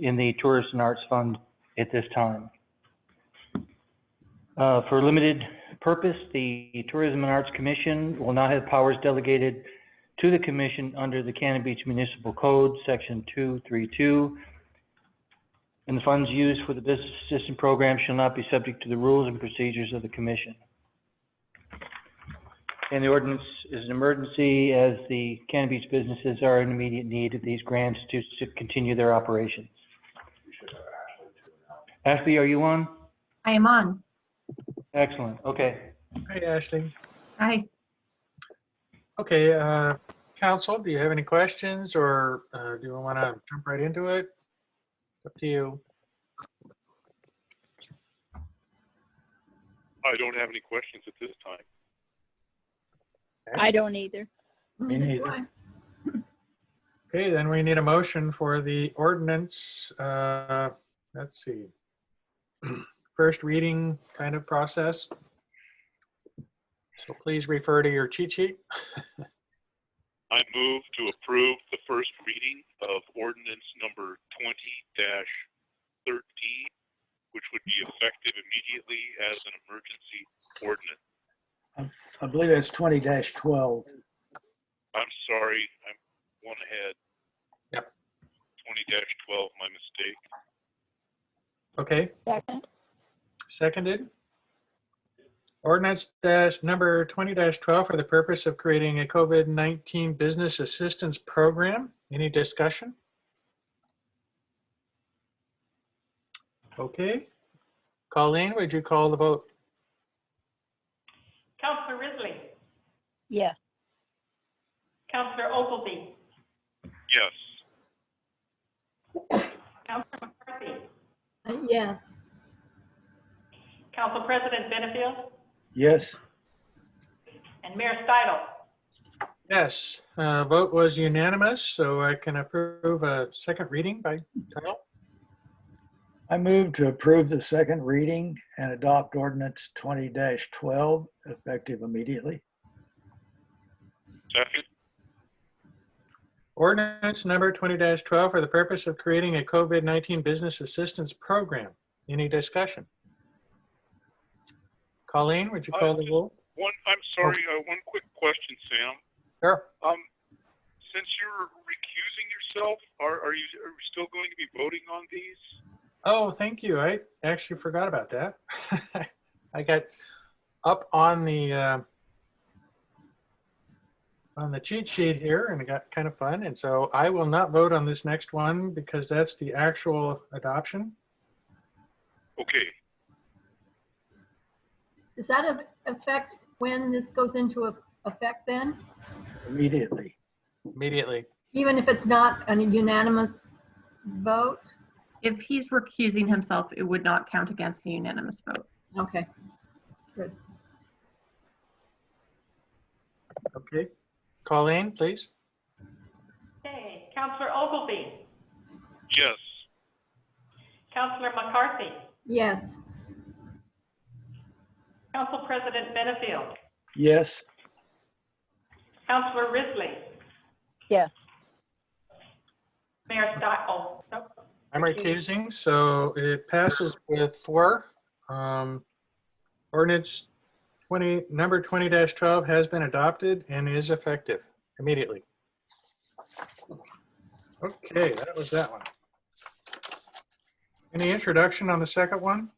in the Tourist and Arts Fund at this time. Uh, For limited purpose, the Tourism and Arts Commission will not have powers delegated to the commission under the Cannon Beach Municipal Code, Section 232. And the funds used for the business assistance program shall not be subject to the rules and procedures of the commission. And the ordinance is an emergency as the Cannon Beach businesses are in immediate need of these grants to, to continue their operations. Ashley, are you on? I am on. Excellent, okay. Hi, Ashley. Hi. Okay, uh, council, do you have any questions or uh, do you want to jump right into it? Up to you. I don't have any questions at this time. I don't either. Me neither. Okay, then we need a motion for the ordinance. uh, Let's see. First reading kind of process. So please refer to your cheat sheet. I move to approve the first reading of ordinance number twenty thirteen, which would be effective immediately as an emergency ordinance. I believe that's twenty twelve. I'm sorry, I'm one ahead. Yep. Twenty twelve, my mistake. Okay, Second. seconded. Ordinance dash number twenty twelve for the purpose of creating a COVID nineteen business assistance program. Any discussion? Okay. Colleen, would you call the vote? Counselor Risley, Yes. Counselor Ogleby, Yes, Counselor McCarthy, Yes. Council President Benefield, Yes, and Mayor Stidle. Yes, uh, vote was unanimous, so I can approve a second reading by title. I move to approve the second reading and adopt ordinance twenty twelve effective immediately. second, Ordinance number twenty twelve for the purpose of creating a COVID nineteen business assistance program. Any discussion? Colleen, would Oh, you call the roll? one, I'm sorry, uh, one quick question, Sam. Sure. Um, since you're recusing yourself, are, are you, are we still going to be voting on these? Oh, thank you. I actually forgot about that. I got up on the uh, on the cheat sheet here, and it got kind of fun. And so I will not vote on this next one because that's the actual adoption. Okay, Does that af- affect when this goes into eff- effect then? Immediately. Immediately. Even if it's not a unanimous vote? If he's recusing himself, it would not count against the unanimous vote. Okay. Okay. Colleen, please. Okay, Counselor Ogleby, yes, Counselor McCarthy, Yes. Council President Benefield, Yes, Counselor Risley. Yes. Mayor Stidle, nope, I'm Recuse. recusing, so it passes with four. Um, Ordinance 20, number 20-12 has been adopted and is effective immediately. Okay, that was that one. Any introduction on the second one?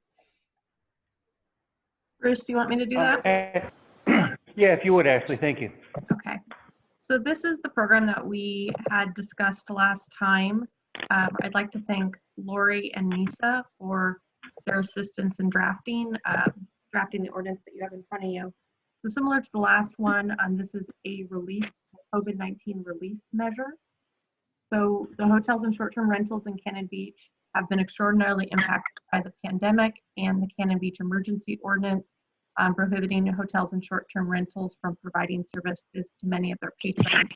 Bruce, do you want me to do Uh, that? Yeah, if you would, Ashley, thank you. Okay. So this is the program that we had discussed last time. Um, I'd like to thank Lori and Nisa for their assistance in drafting, uh, drafting the ordinance that you have in front of you. So similar to the last one, um, this is a relief, COVID-19 relief measure. So the hotels and short-term rentals in Cannon Beach have been extraordinarily impacted by the pandemic and the Cannon Beach Emergency Ordinance um, prohibiting hotels and short-term rentals from providing services to many of their patrons.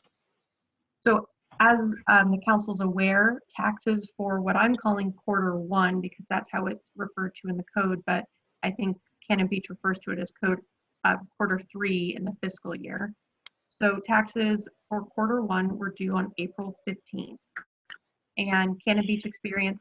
So as um, the council's aware, taxes for what I'm calling quarter one, because that's how it's referred to in the code, but I think Cannon Beach refers to it as code uh, quarter three in the fiscal year. So taxes for quarter one were due on April 15th. And Cannon Beach experienced